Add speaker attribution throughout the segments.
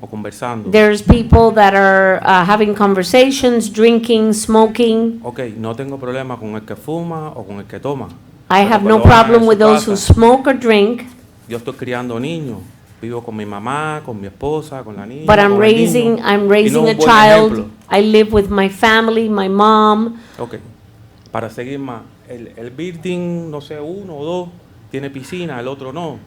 Speaker 1: o conversando.
Speaker 2: There's people that are uh, having conversations, drinking, smoking.
Speaker 1: ok, no tengo problema con el que fuma o con el que toma.
Speaker 2: I
Speaker 1: pero
Speaker 2: have
Speaker 1: cuando
Speaker 2: no
Speaker 1: van a
Speaker 2: problem
Speaker 1: su
Speaker 2: with those who
Speaker 1: casa,
Speaker 2: smoke or drink,
Speaker 1: Yo estoy criando niños. Vivo con mi mamá, con mi esposa, con la niña.
Speaker 2: but I'm
Speaker 1: con el niño,
Speaker 2: raising,
Speaker 1: y
Speaker 2: I'm
Speaker 1: no
Speaker 2: raising
Speaker 1: un
Speaker 2: a
Speaker 1: buen
Speaker 2: child.
Speaker 1: ejemplo.
Speaker 2: I live with my family, my mom.
Speaker 1: Ok, para seguir más. El, el building, no sé, uno o dos, tiene piscina, el otro no.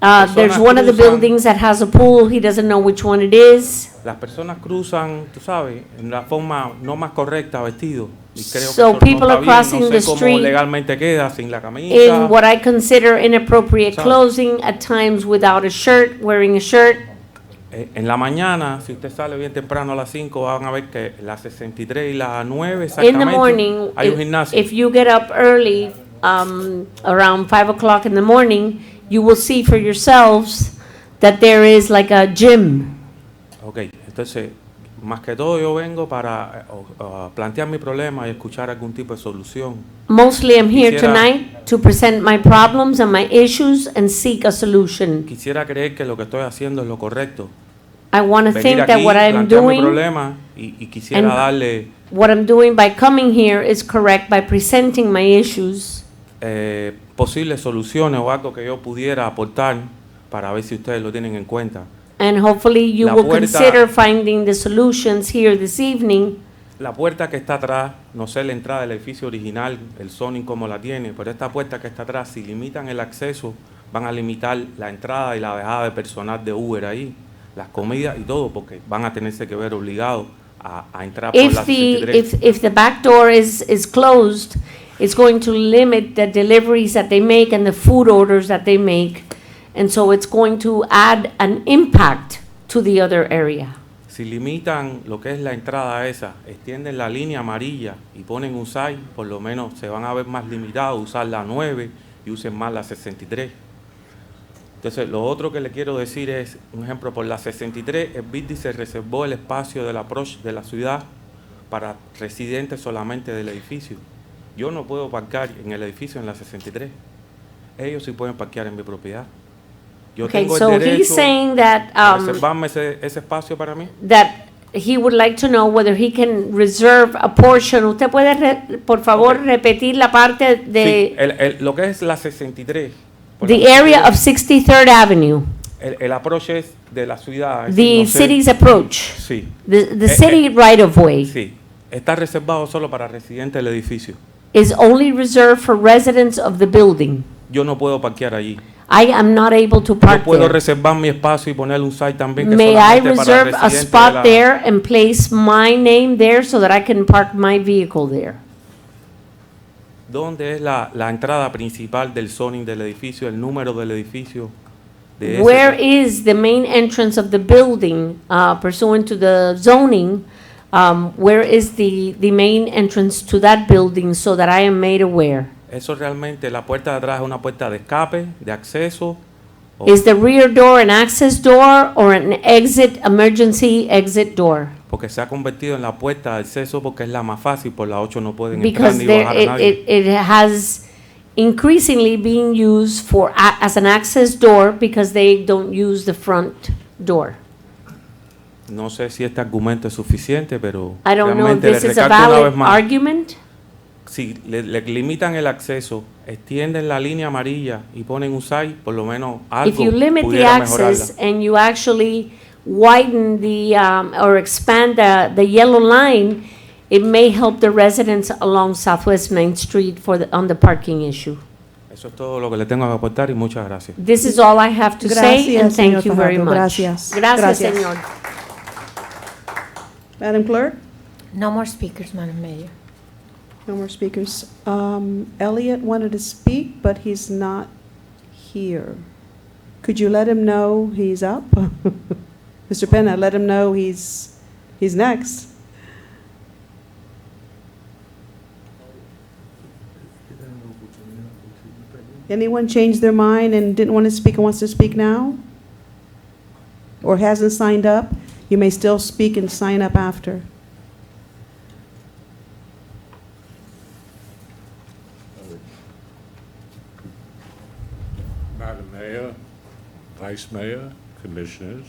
Speaker 2: Uh, There's
Speaker 1: Personas
Speaker 2: one of the
Speaker 1: cruzan.
Speaker 2: buildings that has a pool. He doesn't know which one it is.
Speaker 1: Las personas cruzan, tú sabes, en la forma no más correcta vestido. Y creo que eso
Speaker 2: So people
Speaker 1: no
Speaker 2: are
Speaker 1: está bien,
Speaker 2: crossing
Speaker 1: no
Speaker 2: the
Speaker 1: sé cómo
Speaker 2: street
Speaker 1: legalmente queda, sin la camisa.
Speaker 2: In what I consider inappropriate
Speaker 1: Cruzan.
Speaker 2: clothing, at times without a shirt, wearing a shirt.
Speaker 1: Eh, en la mañana, si usted sale bien temprano a las 5, van a ver que las 63 y las 9
Speaker 2: In
Speaker 1: exactamente
Speaker 2: the morning,
Speaker 1: hay un
Speaker 2: if
Speaker 1: gimnasio.
Speaker 2: if you get up early, um, around five o'clock in the morning, you will see for yourselves that there is like a gym.
Speaker 1: ok, entonces, más que todo yo vengo para eh, o- o plantear mi problema y escuchar algún tipo de solución.
Speaker 2: Mostly I'm here
Speaker 1: Quisiera-
Speaker 2: tonight to present my problems and my issues and seek a solution.
Speaker 1: Quisiera creer que lo que estoy haciendo es lo correcto.
Speaker 2: I want to
Speaker 1: Venir
Speaker 2: think
Speaker 1: aquí,
Speaker 2: that what I'm
Speaker 1: plantear mi
Speaker 2: doing,
Speaker 1: problema y, y quisiera
Speaker 2: and-
Speaker 1: darle
Speaker 2: what I'm doing by coming here is correct by presenting my issues.
Speaker 1: eh, posibles soluciones o algo que yo pudiera aportar para ver si ustedes lo tienen en cuenta.
Speaker 2: And hopefully you
Speaker 1: La
Speaker 2: will
Speaker 1: puerta-
Speaker 2: consider finding the solutions here this evening.
Speaker 1: La puerta que está atrás, no sé la entrada del edificio original, el Sonic como la tiene, pero esta puerta que está atrás, si limitan el acceso, van a limitar la entrada y la dejada de personal de Uber ahí, las comidas y todo, porque van a tenerse que ver obligados a, a entrar por la
Speaker 2: If the,
Speaker 1: 63.
Speaker 2: if, if the back door is, is closed, it's going to limit the deliveries that they make and the food orders that they make. And so it's going to add an impact to the other area.
Speaker 1: Si limitan lo que es la entrada esa, extienden la línea amarilla y ponen un SAI, por lo menos se van a ver más limitados, a usar la 9 y usen más la 63. Entonces, lo otro que le quiero decir es, un ejemplo, por la 63, el BIDI se reservó el espacio del approach de la ciudad para residentes solamente del edificio. Yo no puedo parquear en el edificio en la 63. Ellos sí pueden parquear en mi propiedad. Yo
Speaker 2: Okay,
Speaker 1: tengo el
Speaker 2: so he's
Speaker 1: derecho
Speaker 2: saying that,
Speaker 1: a
Speaker 2: um,
Speaker 1: reservarme ese- ese espacio para mí.
Speaker 2: that he would like to know whether he can reserve a portion. ¿Usted puede, re- por favor,
Speaker 1: Okay.
Speaker 2: repetir la parte
Speaker 1: Sí,
Speaker 2: de
Speaker 1: el, el- lo que es la 63. por
Speaker 2: the
Speaker 1: la-
Speaker 2: area of 63rd Avenue?
Speaker 1: el, el approach es de la ciudad. es decir,
Speaker 2: The
Speaker 1: no sé-
Speaker 2: city's approach,
Speaker 1: Sí,
Speaker 2: the, the
Speaker 1: Eh,
Speaker 2: city
Speaker 1: eh,
Speaker 2: right of way.
Speaker 1: sí. Está reservado solo para residentes del edificio.
Speaker 2: is only reserved for residents of the building.
Speaker 1: Yo no puedo parquear allí.
Speaker 2: I am not able to
Speaker 1: Yo
Speaker 2: park
Speaker 1: puedo
Speaker 2: there.
Speaker 1: reservar mi espacio y poner un site también que
Speaker 2: May I
Speaker 1: solamente para
Speaker 2: reserve a
Speaker 1: residentes de la-
Speaker 2: spot there and place my name there so that I can park my vehicle there?
Speaker 1: ¿Dónde es la, la entrada principal del zoning del edificio, el número del edificio? de ese-
Speaker 2: Where is the main entrance of the building uh, pursuant to the zoning? Um, Where is the, the main entrance to that building so that I am made aware?
Speaker 1: Eso realmente, la puerta de atrás es una puerta de escape, de acceso. o-
Speaker 2: Is the rear door an access door or an exit, emergency exit door?
Speaker 1: Porque se ha convertido en la puerta de acceso porque es la más fácil, por la 8 no pueden entrar
Speaker 2: Because
Speaker 1: ni
Speaker 2: there,
Speaker 1: bajar a
Speaker 2: it,
Speaker 1: nadie.
Speaker 2: it, it has increasingly been used for, a- as an access door because they don't use the front door.
Speaker 1: no sé si este argumento es suficiente, pero
Speaker 2: I don't know if
Speaker 1: realmente le
Speaker 2: this is a
Speaker 1: recalco una
Speaker 2: valid
Speaker 1: vez más.
Speaker 2: argument.
Speaker 1: Si le, le limitan el acceso, extienden la línea amarilla y ponen un SAI, por lo menos
Speaker 2: If
Speaker 1: algo
Speaker 2: you limit the
Speaker 1: pudiera
Speaker 2: access
Speaker 1: mejorarla.
Speaker 2: and you actually widen the, um, or expand the, the yellow line, it may help the residents along Southwest Main Street for the, on the parking issue.
Speaker 1: Eso es todo lo que le tengo que aportar y muchas gracias.
Speaker 2: This is all I have to say and
Speaker 3: Gracias,
Speaker 2: thank
Speaker 3: señor
Speaker 2: you very
Speaker 3: Fajardo.
Speaker 2: much.
Speaker 3: Gracias.
Speaker 2: Gracias,
Speaker 3: Gracias.
Speaker 2: señor.
Speaker 3: Madam Clerk,
Speaker 4: No more speakers, Madam Mayor.
Speaker 3: no more speakers. Um, Elliot wanted to speak, but he's not here. Could you let him know he's up? Mr. Penna, let him know he's, he's next. Anyone changed their mind and didn't want to speak and wants to speak now? Or hasn't signed up? You may still speak and sign up after.
Speaker 5: Madam Mayor, Vice Mayor, Commissioners,